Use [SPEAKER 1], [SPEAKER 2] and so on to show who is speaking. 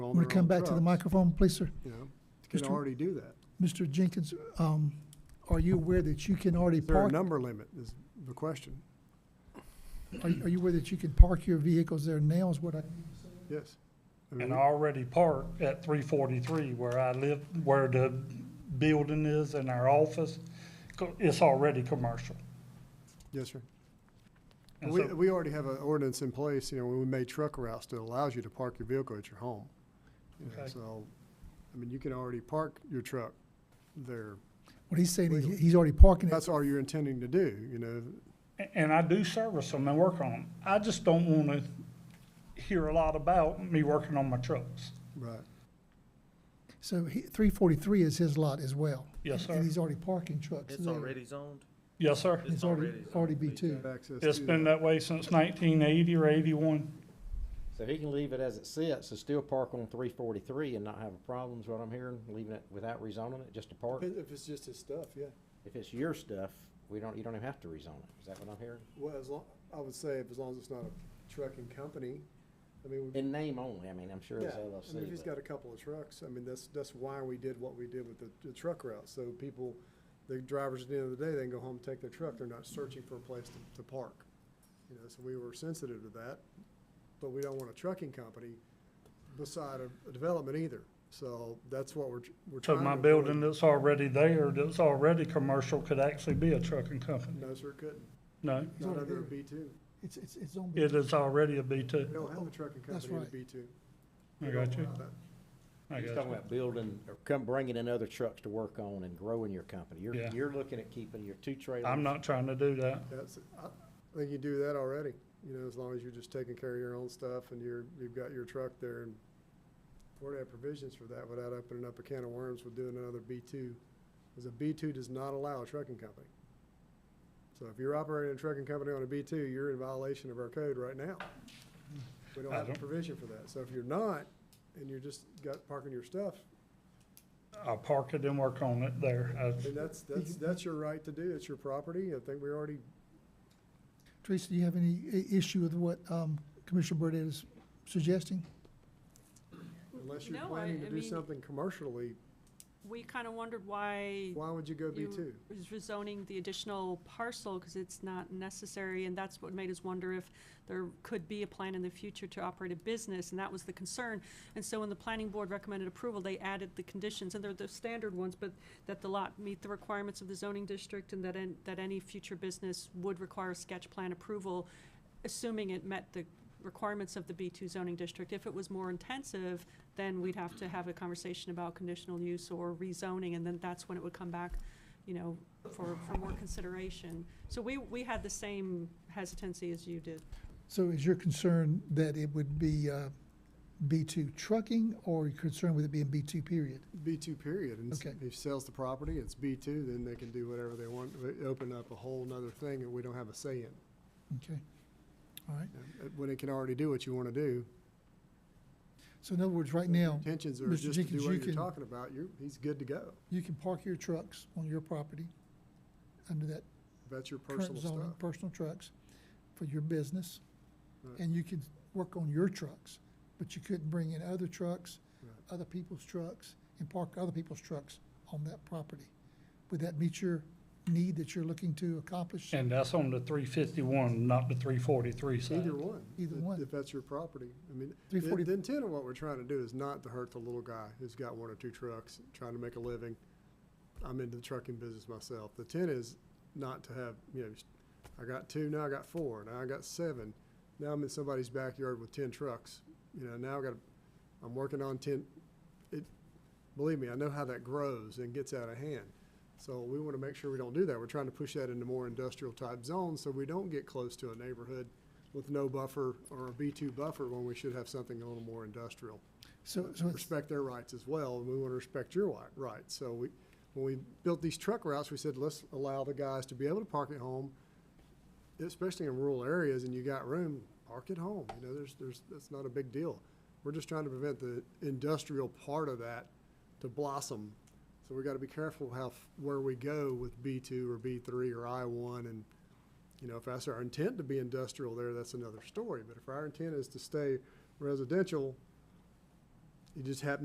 [SPEAKER 1] on
[SPEAKER 2] Want to
[SPEAKER 1] their
[SPEAKER 2] come
[SPEAKER 1] own
[SPEAKER 2] back to the
[SPEAKER 1] trucks,
[SPEAKER 2] microphone, please, sir?
[SPEAKER 1] You know, can
[SPEAKER 2] Mr.
[SPEAKER 1] already do that.
[SPEAKER 2] Mr. Jenkins, um, are you aware that you can already
[SPEAKER 1] Is there a
[SPEAKER 2] park?
[SPEAKER 1] number limit is the question?
[SPEAKER 2] Are you are you aware that you can park your vehicles there now is what I,
[SPEAKER 1] Yes. I mean,
[SPEAKER 3] And I already park at three forty-three where I live, where the building is and our office. Co- It's already commercial.
[SPEAKER 1] Yes, sir.
[SPEAKER 3] And
[SPEAKER 1] We,
[SPEAKER 3] so-
[SPEAKER 1] we already have an ordinance in place, you know, when we made truck routes that allows you to park your vehicle at your home. You know,
[SPEAKER 3] Okay.
[SPEAKER 1] So, I mean, you can already park your truck there.
[SPEAKER 2] what he's saying is
[SPEAKER 1] Legally.
[SPEAKER 2] he's already parking it.
[SPEAKER 1] That's all you're intending to do, you know?
[SPEAKER 3] a- And I do service them and work on them. I just don't wanna hear a lot about me working on my trucks.
[SPEAKER 1] Right.
[SPEAKER 2] So he, three forty-three is his lot as well.
[SPEAKER 3] Yes,
[SPEAKER 2] And-
[SPEAKER 3] sir.
[SPEAKER 2] And he's already parking trucks
[SPEAKER 4] It's
[SPEAKER 2] there.
[SPEAKER 4] already zoned?
[SPEAKER 3] Yes, sir.
[SPEAKER 2] It's already, already B two.
[SPEAKER 1] Access
[SPEAKER 3] It's
[SPEAKER 1] to
[SPEAKER 3] been
[SPEAKER 1] that.
[SPEAKER 3] that way since nineteen eighty or eighty-one.
[SPEAKER 5] So he can leave it as it sits, and still park on three forty-three and not have a problem, is what I'm hearing, leaving it without rezoning it, just to park?
[SPEAKER 1] If if it's just his stuff, yeah.
[SPEAKER 5] If it's your stuff, we don't, you don't even have to rezone it, is that what I'm hearing?
[SPEAKER 1] Well, as long, I would say if as long as it's not a trucking company, I mean, we-
[SPEAKER 5] In name only, I mean, I'm sure
[SPEAKER 1] yeah,
[SPEAKER 5] it's
[SPEAKER 1] I mean, if he's
[SPEAKER 5] LLC,
[SPEAKER 1] got
[SPEAKER 5] but
[SPEAKER 1] a couple of trucks, I mean, that's, that's why we did what we did with the, the truck route. So people, the drivers at the end of the day, they can go home, take their truck, they're not searching for a place to, to park. You know, so we were sensitive to that, but we don't want a trucking company beside a, a development either. So that's what we're, tr- we're
[SPEAKER 3] So
[SPEAKER 1] trying to.
[SPEAKER 3] my
[SPEAKER 1] avoid.
[SPEAKER 3] building that's already there, that's already commercial, could actually be a trucking company.
[SPEAKER 1] No, sir, it couldn't.
[SPEAKER 3] No,
[SPEAKER 1] Not
[SPEAKER 2] already
[SPEAKER 1] under a
[SPEAKER 2] there.
[SPEAKER 1] B two.
[SPEAKER 2] It's, it's, it's on. B
[SPEAKER 3] it is already a B two.
[SPEAKER 1] We don't have a trucking
[SPEAKER 2] That's
[SPEAKER 1] company in a
[SPEAKER 2] right.
[SPEAKER 1] B two.
[SPEAKER 3] I got you. I
[SPEAKER 5] he's
[SPEAKER 3] got
[SPEAKER 5] talking
[SPEAKER 3] you.
[SPEAKER 5] about building, or come, bringing in other trucks to work on and growing your company. You're,
[SPEAKER 3] Yeah.
[SPEAKER 5] you're looking at keeping your two trailers.
[SPEAKER 3] I'm not trying to do that.
[SPEAKER 1] That's, I I think you do that already, you know, as long as you're just taking care of your own stuff and you're, you've got your truck there and we're to have provisions for that without opening up a can of worms with doing another B two. Because a B two does not allow a trucking company. So if you're operating a trucking company on a B two, you're in violation of our code right now. We don't
[SPEAKER 3] I
[SPEAKER 1] have a
[SPEAKER 3] don't-
[SPEAKER 1] provision for that. So if you're not, and you're just got parking your stuff,
[SPEAKER 3] I'll park it and work on it there.
[SPEAKER 1] I mean,
[SPEAKER 3] I-
[SPEAKER 1] that's, that's, that's your right to do. It's your property. I think we already
[SPEAKER 2] Teresa, do you have any i- issue with what, um, Commissioner Burdette is suggesting?
[SPEAKER 1] Unless you're
[SPEAKER 6] No, I-
[SPEAKER 1] planning to
[SPEAKER 6] I
[SPEAKER 1] do
[SPEAKER 6] mean-
[SPEAKER 1] something commercially,
[SPEAKER 6] We kind of wondered why
[SPEAKER 1] why would you go B two?
[SPEAKER 6] you was rezoning the additional parcel, because it's not necessary, and that's what made us wonder if there could be a plan in the future to operate a business, and that was the concern. And so when the planning board recommended approval, they added the conditions, and they're the standard ones, but that the lot meet the requirements of the zoning district, and that, an- that any future business would require sketch plan approval, assuming it met the requirements of the B2 zoning district. If it was more intensive, then we'd have to have a conversation about conditional use or rezoning, and then that's when it would come back, you know, for, for more consideration. So we, we had the same hesitancy as you did.
[SPEAKER 2] So is your concern that it would be, uh, B two trucking or you're concerned with it being B two period?
[SPEAKER 1] B two period, and s-
[SPEAKER 2] Okay.
[SPEAKER 1] if he sells the property, it's B two, then they can do whatever they want, They open up a whole nother thing that we don't have a say in.
[SPEAKER 2] Okay, all right.
[SPEAKER 1] Uh, When it can already do what you wanna do,
[SPEAKER 2] So in other words, right now,
[SPEAKER 1] intentions are
[SPEAKER 2] Mr.
[SPEAKER 1] just to
[SPEAKER 2] Jenkins,
[SPEAKER 1] do
[SPEAKER 2] you
[SPEAKER 1] what you're
[SPEAKER 2] can-
[SPEAKER 1] talking about, you're, he's good to go.
[SPEAKER 2] you can park your trucks on your property under that
[SPEAKER 1] That's your personal
[SPEAKER 2] current zoning,
[SPEAKER 1] stuff.
[SPEAKER 2] personal trucks for your business.
[SPEAKER 1] Right.
[SPEAKER 2] And you could work on your trucks, but you couldn't bring in other trucks,
[SPEAKER 1] Right.
[SPEAKER 2] other people's trucks, and park other people's trucks on that property. Would that meet your need that you're looking to accomplish?
[SPEAKER 3] And that's on the three fifty-one, not the three forty-three side.
[SPEAKER 1] Either one.
[SPEAKER 2] Either
[SPEAKER 1] if-
[SPEAKER 2] one.
[SPEAKER 1] If that's your property. I mean, the,
[SPEAKER 2] 340
[SPEAKER 1] the intent of what we're trying to do is not to hurt the little guy who's got one or two trucks, trying to make a living. I'm into the trucking business myself. The intent is not to have, you know, I got two, now I got four, now I got seven. Now I'm in somebody's backyard with ten trucks, you know, now I got, I'm working on ten. It, believe me, I know how that grows and gets out of hand. So we want to make sure we don't do that. We're trying to push that into more industrial type zones so we don't get close to a neighborhood with no buffer or a B2 buffer when we should have something a little more industrial.
[SPEAKER 2] So, so it's,
[SPEAKER 1] Respect their rights as well, and we want to respect your wi- rights. So we, when we built these truck routes, we said, let's allow the guys to be able to park at home, especially in rural areas, and you got room, park at home. You know, there's, there's, that's not a big deal. We're just trying to prevent the industrial part of that to blossom. So we got to be careful how, f- where we go with B2 or B3 or I1 and you know, if that's our intent to be industrial there, that's another story. But if our intent is to stay residential, It just happened